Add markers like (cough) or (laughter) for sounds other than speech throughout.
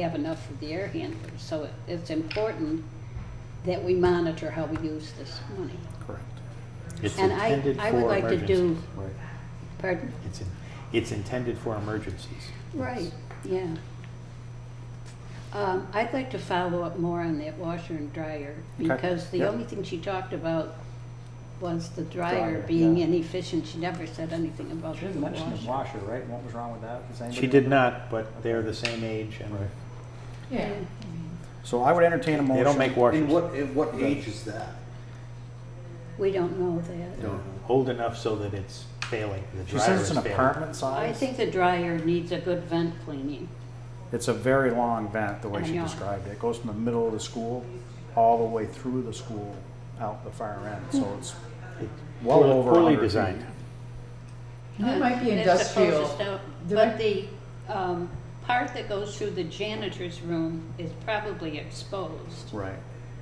have enough of the air handlers. So it- it's important that we monitor how we use this money. Correct. It's And I- intended I would for like to do- emergencies, right. Pardon? It's, in- it's intended for emergencies. Right, yeah. Um, I'd like to follow up more on that washer and dryer, Okay, because the yeah. only thing she talked about was the dryer Dryer, being yeah. inefficient. She never said anything about She the didn't mention the washer. washer, right? What was wrong with that? Does anybody She did remember? not, but they're the same age and Right. Yeah. So I would entertain a motion. they don't make And washers. what, and what age is that? We don't know that. They're Old enough so that it's failing. The She dryer says it's is an failing. apartment size. I think the dryer needs a good vent cleaning. It's a very long vent, the way I she know. described it. It goes from the middle of the school, all the way through the school, out the far end, so it's It- well poorly- over Poorly 100 feet. designed. That might be That's the industrial. closest out, The But mi- the, um, part that goes through the janitor's room is probably exposed. Right.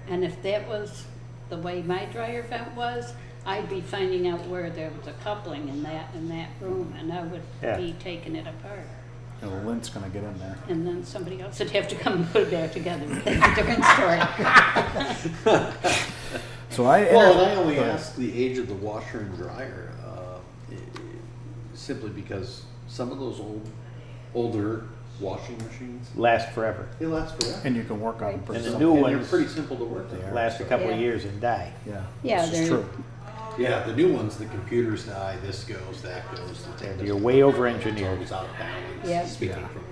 And if that was the way my dryer vent was, I'd be finding out where there was a coupling in that, in that room, and I would Yeah. be taking it apart. And the lint's gonna get in there. And then somebody else would have to come and put it back together, (laughs) that's a different story. So I. Well, and I only Go ahead. ask the age of the washer and dryer, uh, i- i- simply because some of those old, older washing machines, Last forever. they last forever. And you can work on. it for And the some- new And ones They're pretty simple to work with. last a couple of Yeah. years and die. Yeah. Yeah, This is they're- true. Yeah, the new ones, the computers die, this goes, that goes. the thing And doesn't you're work, way It's over-engineered. always out of Yeah. balance, speaking Yeah. from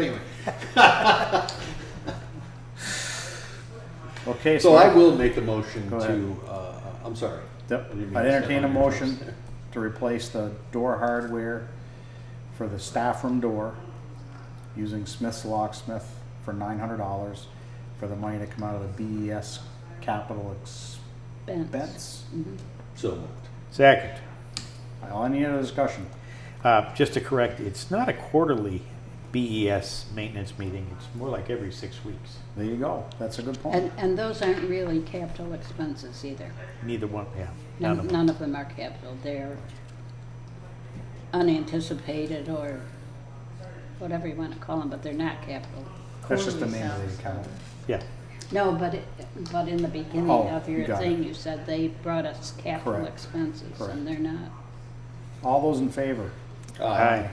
experience. But (laughs) anyway, Okay, so. so I will make a motion Go ahead. to, uh, I'm sorry. Yep, I didn't mean I'd to step entertain a on your toes motion there. (laughs) to replace the door hardware for the staff room door using Smith's locksmith for nine hundred dollars for the money to come out of the BES capital Vents. expense. Mm-hmm. So moved. Second, All I need is a discussion. uh, just to correct, it's not a quarterly BES maintenance meeting. It's more like every six weeks. There you go. That's a good And, point. and those aren't really capital expenses either. Neither one, yeah. none None of them. none of them are capital, they're unanticipated or whatever you want to call them, but they're not capital. That's just the Quarterly name of sounds the account. Yeah, No, but, it- but in the beginning Oh, of you your got thing, it. you said they brought us capital Correct. expenses, Correct. and they're not. All those in favor, aye.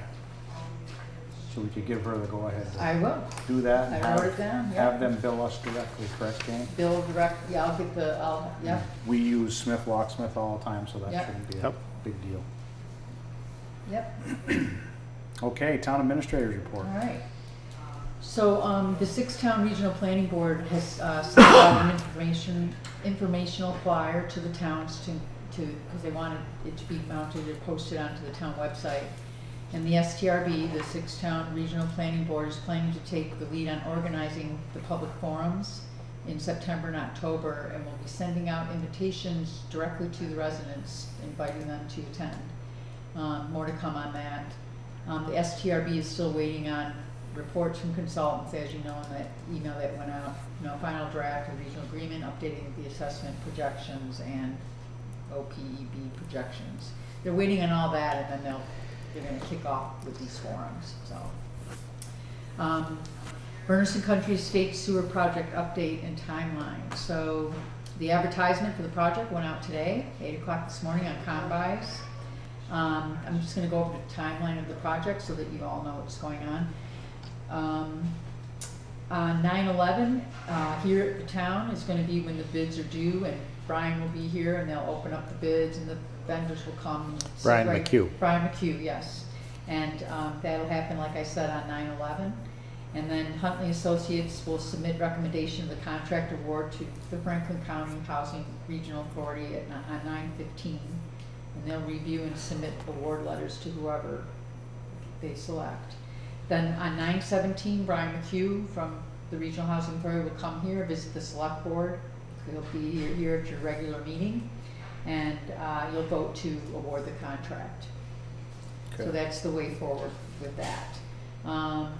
so we could give her the go-ahead. to I will. Do that. and I wrote have- it down, yeah. Have them bill us directly, correct, Jane? Bill direct, yeah, I'll get the, I'll, yeah. We use Smith locksmith all the time, so that Yep. shouldn't be a Yep. big deal. Yep, Okay, town administrators all report. right. So, um, the Six-Town Regional Planning Board has, uh, sent out an information, informational flyer to the towns to, to, because they wanted it to be mounted or posted onto the town website. And the STRB, the Six-Town Regional Planning Board, is planning to take the lead on organizing the public forums in September and October, and will be sending out invitations directly to the residents, inviting them to attend. Um, more to come on that. Um, the STRB is still waiting on reports from consultants, as you know, in that email that went out, you know, final draft of regional agreement, updating the assessment projections and OPEB projections. They're waiting on all that, and then they'll, they're gonna kick off with these forums, so. Um, Berniston Country State Sewer Project update and timeline. So the advertisement for the project went out today, eight o'clock this morning on Combis. Um, I'm just gonna go over the timeline of the project so that you all know what's going on. Um, uh, 9/11 uh, here at the town is going to be when the bids are due, and Brian will be here, and they'll open up the bids, and the vendors will come. and sit Brian right- McHugh. Brian McHugh, yes. And um, that'll happen, like I said, on 9/11. And then Huntley Associates will submit recommendation of the contract award to the Franklin County Housing Regional Authority at ni- on 9/15. And they'll review and submit award letters to whoever they select. Then on nine seventeen, Brian McHugh from the Regional Housing Authority will come here, visit the select board. He'll be here at your regular meeting, and uh, you'll vote to award the contract. So Okay. that's the way forward with that. Um,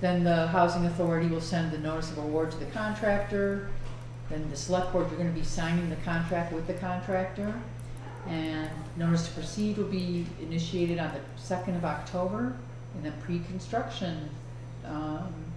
Then the housing authority will send the notice of award to the contractor. Then the select board, you're gonna be signing the contract with the contractor. And notice to proceed will be initiated on the second of October. And then pre-construction, um,